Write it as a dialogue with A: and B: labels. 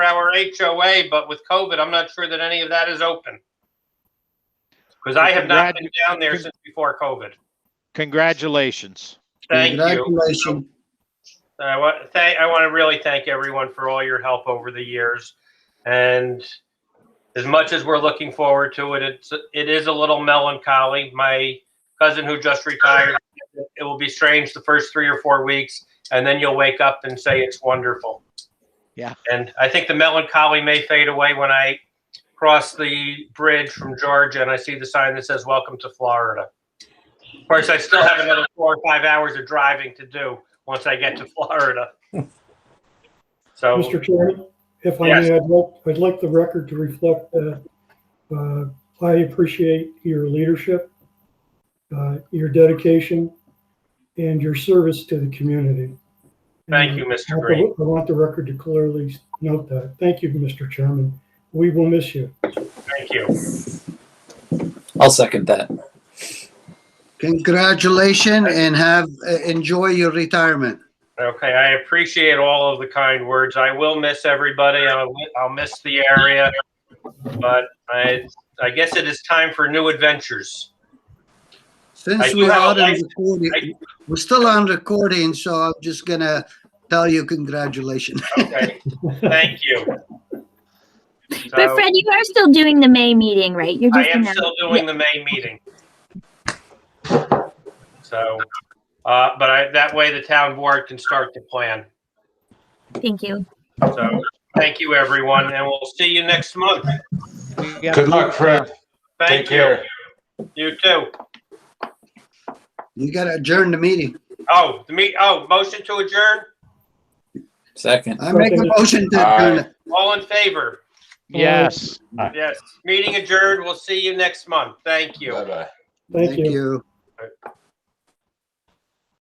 A: our HOA, but with COVID, I'm not sure that any of that is open. Because I have not been down there since before COVID.
B: Congratulations.
A: Thank you.
C: Congratulations.
A: I want, thank, I want to really thank everyone for all your help over the years. And as much as we're looking forward to it, it's, it is a little melancholy. My cousin who just retired, it will be strange the first three or four weeks, and then you'll wake up and say it's wonderful.
B: Yeah.
A: And I think the melancholy may fade away when I cross the bridge from Georgia and I see the sign that says, Welcome to Florida. Of course, I still have another four or five hours of driving to do once I get to Florida. So,
D: Mr. Chairman, if I
A: Yes.
D: may, I'd like, I'd like the record to reflect that uh, I appreciate your leadership, uh, your dedication, and your service to the community.
A: Thank you,
D: And
A: Mr.
D: I want the-
A: Green.
D: I want the record to clearly note that. Thank you, Mr. Chairman. We will miss you.
A: thank you.
E: I'll second that.
C: Congratulations and have, uh, enjoy your retirement.
A: Okay, I appreciate all of the kind words. I will miss everybody. I'll, I'll miss the area. But I, I guess it is time for new adventures. I
C: Since
A: do
C: we're
A: have a
C: out on
A: life-
C: recording, we're still on recording, so I'm just gonna tell you congratulations.
A: Okay, thank you.
F: But
A: So
F: Fred, you are still doing the May meeting, right? You're
A: I
F: just
A: am
F: announcing-
A: still doing the May meeting. So, uh, but I, that way the town board can start to plan.
F: Thank you.
A: So, thank you, everyone, and we'll see you next month.
B: Good
G: Good luck, Fred. Take
A: Thank you.
G: care.
A: You too.
C: You gotta adjourn the meeting.
A: Oh, the meet, oh, motion to adjourn?
E: Second.
C: I make a motion to adjourn.
G: Aye.
C: it.
A: All in favor?
B: Yes.
A: Yes. Meeting adjourned. We'll see you next month. Thank you.
G: Bye-bye.
D: Thank you.
C: you.